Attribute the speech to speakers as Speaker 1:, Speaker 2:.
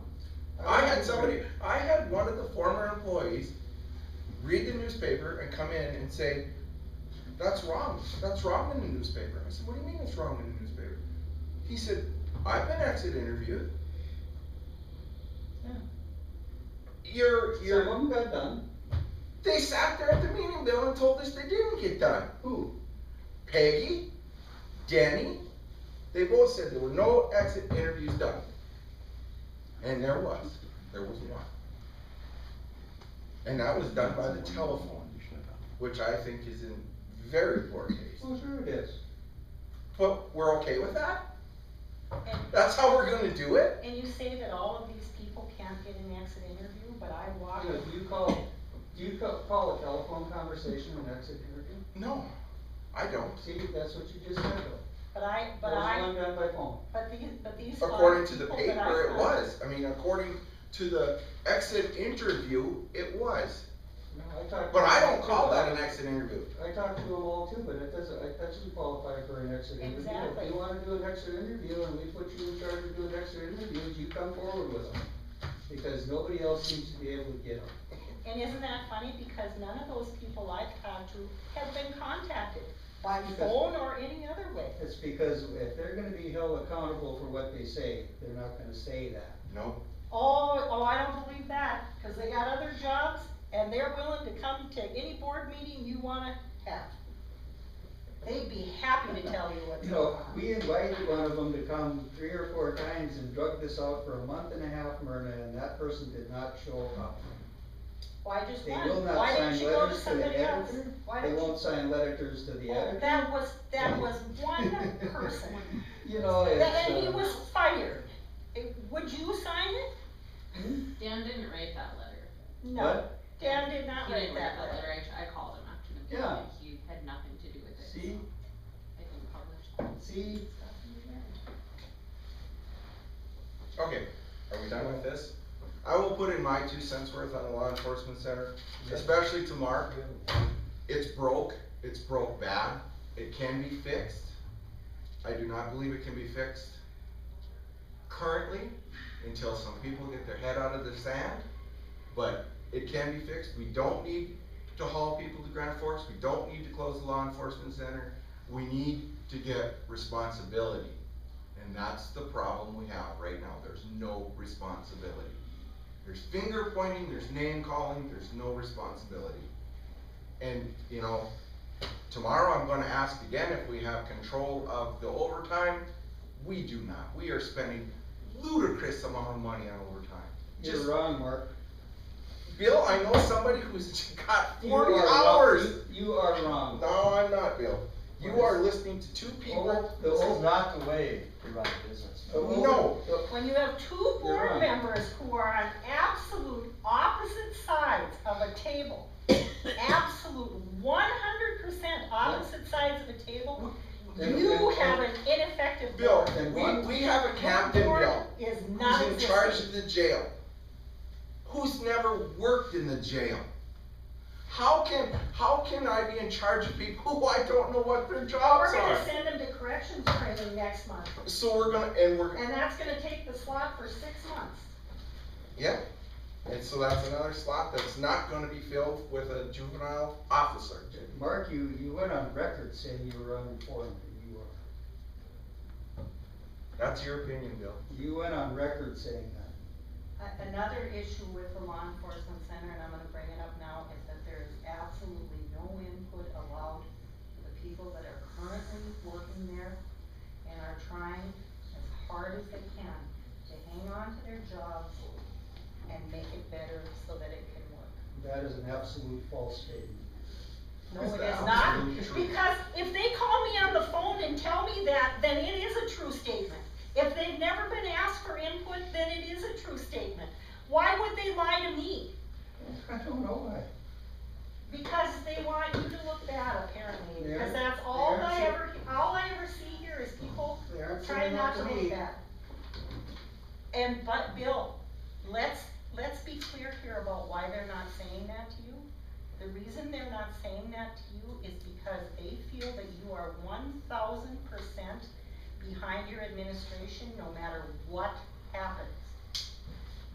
Speaker 1: find somebody, I had one of the former employees read the newspaper and come in and say, that's wrong, that's wrong in the newspaper. I said, what do you mean it's wrong in the newspaper? He said, I've been exit interviewed.
Speaker 2: Yeah.
Speaker 1: You're,
Speaker 2: Some
Speaker 1: you're,
Speaker 2: of them got done.
Speaker 1: they sat there at the meeting, Bill, and told us they didn't get done. Who? Peggy, Danny, they both said there were no exit interviews done. And there was, there was one. And that was done by the telephone, which I think is in very poor taste.
Speaker 2: Well, sure it is.
Speaker 1: But we're okay with that? That's how we're gonna do it?
Speaker 3: And you say that all of these people can't get an exit interview, but I walk.
Speaker 2: You know, do you call, do you co- call a telephone conversation an exit interview?
Speaker 1: No, I don't.
Speaker 2: See, that's what you just said though.
Speaker 3: But I, but
Speaker 2: There was
Speaker 3: I,
Speaker 2: one done by phone.
Speaker 3: but these, but these. five
Speaker 1: According to the
Speaker 3: people that I
Speaker 1: paper, it
Speaker 3: found-
Speaker 1: was. I mean, according to the exit interview, it was.
Speaker 2: No, I talked. to
Speaker 1: But I
Speaker 2: them
Speaker 1: don't
Speaker 2: all
Speaker 1: call
Speaker 2: too.
Speaker 1: that an exit interview.
Speaker 2: I talked to them all too, but it doesn't, it doesn't qualify for an exit interview.
Speaker 3: Exactly.
Speaker 2: If you wanna do an exit interview and we put you in charge of doing exit interviews, you come forward with them. Because nobody else seems to be able to get them.
Speaker 3: And isn't that funny, because none of those people I've talked to have been contacted by
Speaker 2: Because-
Speaker 3: phone or any other way.
Speaker 2: It's because if they're gonna be held accountable for what they say, they're not gonna say that.
Speaker 1: No,
Speaker 3: Oh, oh, I don't believe that, cause they got other jobs and they're willing to come to any board meeting you wanna have. They'd be happy to tell you what's
Speaker 2: You
Speaker 3: going
Speaker 2: know,
Speaker 3: on.
Speaker 2: we invited one of them to come three or four times and drug this out for a month and a half, Myrna, and that person did not show up.
Speaker 3: Why just
Speaker 2: They
Speaker 3: one?
Speaker 2: will not
Speaker 3: Why didn't
Speaker 2: sign
Speaker 3: you go to
Speaker 2: letters to the
Speaker 3: somebody else?
Speaker 2: editor.
Speaker 3: Why
Speaker 2: They
Speaker 3: didn't you?
Speaker 2: won't sign letters to the
Speaker 3: Oh,
Speaker 2: editor.
Speaker 3: that was, that was one person,
Speaker 2: You know,
Speaker 3: That-
Speaker 2: it's,
Speaker 3: and he
Speaker 2: uh,
Speaker 3: was fired. Eh, Would you sign it?
Speaker 4: Dan didn't write that letter.
Speaker 3: No,
Speaker 2: What?
Speaker 3: Dan did not
Speaker 4: He
Speaker 3: write
Speaker 4: didn't
Speaker 3: that
Speaker 4: write
Speaker 3: letter.
Speaker 4: I, I called him after the
Speaker 2: Yeah.
Speaker 4: meeting, he had nothing to do with it.
Speaker 2: See?
Speaker 4: so I didn't publish that.
Speaker 2: see,
Speaker 1: okay, are we done with this? I will put in my two cents worth on the law enforcement center, especially to Mark. It's broke, it's broke bad, it can be fixed. I do not believe it can be fixed currently until some people get their head out of the sand. But it can be fixed, we don't need to haul people to Grand Forks, we don't need to close the law enforcement center. We need to get responsibility. And that's the problem we have right now, there's no responsibility. There's finger pointing, there's name calling, there's no responsibility. And, you know, tomorrow I'm gonna ask again if we have control of the overtime. We do not, we are spending ludicrous amount of money on overtime.
Speaker 2: you're
Speaker 1: Just,
Speaker 2: wrong, Mark.
Speaker 1: Bill, I know somebody who's got
Speaker 2: You
Speaker 1: forty
Speaker 2: are wrong.
Speaker 1: hours.
Speaker 2: You are wrong.
Speaker 1: No, I'm not, Bill. You are listening to two people.
Speaker 2: Over- the
Speaker 5: This
Speaker 2: over-
Speaker 5: is not the way we run a business.
Speaker 2: the over-
Speaker 1: No.
Speaker 2: the-
Speaker 3: When you have two
Speaker 2: You're
Speaker 3: board
Speaker 2: right.
Speaker 3: members who are on absolute opposite sides of a table, absolute one hundred percent opposite sides of a table,
Speaker 2: and-
Speaker 3: you
Speaker 2: and-
Speaker 3: have an ineffective
Speaker 1: Bill,
Speaker 3: board.
Speaker 2: And
Speaker 1: we,
Speaker 2: one-
Speaker 1: we have a captain,
Speaker 3: Your
Speaker 1: Bill.
Speaker 3: board is not
Speaker 1: who's in charge
Speaker 3: existing.
Speaker 1: of the jail, who's never worked in the jail. How can, how can I be in charge of people who I don't know what their jobs
Speaker 3: We're gonna
Speaker 1: are?
Speaker 3: send them to corrections training next month,
Speaker 1: So we're gonna, and we're,
Speaker 3: and that's gonna take the slot for six months.
Speaker 1: yeah, and so that's another slot that's not gonna be filled with a juvenile officer.
Speaker 2: Mark, you, you went on record saying you were uninformed, and you are.
Speaker 1: That's your opinion, Bill.
Speaker 2: You went on record saying that.
Speaker 3: A- Another issue with the law enforcement center, and I'm gonna bring it up now, is that there is absolutely no input allowed for the people that are currently working there and are trying as hard as they can to hang on to their jobs and make it better so that it can work.
Speaker 2: That is an absolute false statement.
Speaker 3: No,
Speaker 1: Is
Speaker 3: it
Speaker 1: that
Speaker 3: is not,
Speaker 1: absolutely true?
Speaker 3: because if they call me on the phone and tell me that, then it is a true statement. If they've never been asked for input, then it is a true statement. Why would they lie to me?
Speaker 2: I don't know why.
Speaker 3: Because they want you to look bad, apparently,
Speaker 2: They
Speaker 3: because
Speaker 2: are-
Speaker 3: that's all
Speaker 2: they are
Speaker 3: I
Speaker 2: too.
Speaker 3: ever, all I ever see here is people
Speaker 2: They aren't
Speaker 3: trying
Speaker 2: saying
Speaker 3: not
Speaker 2: that
Speaker 3: to
Speaker 2: to
Speaker 3: look
Speaker 2: me.
Speaker 3: bad. And, but, Bill, let's, let's be clear here about why they're not saying that to you. The reason they're not saying that to you is because they feel that you are one thousand percent behind your administration, no matter what happens.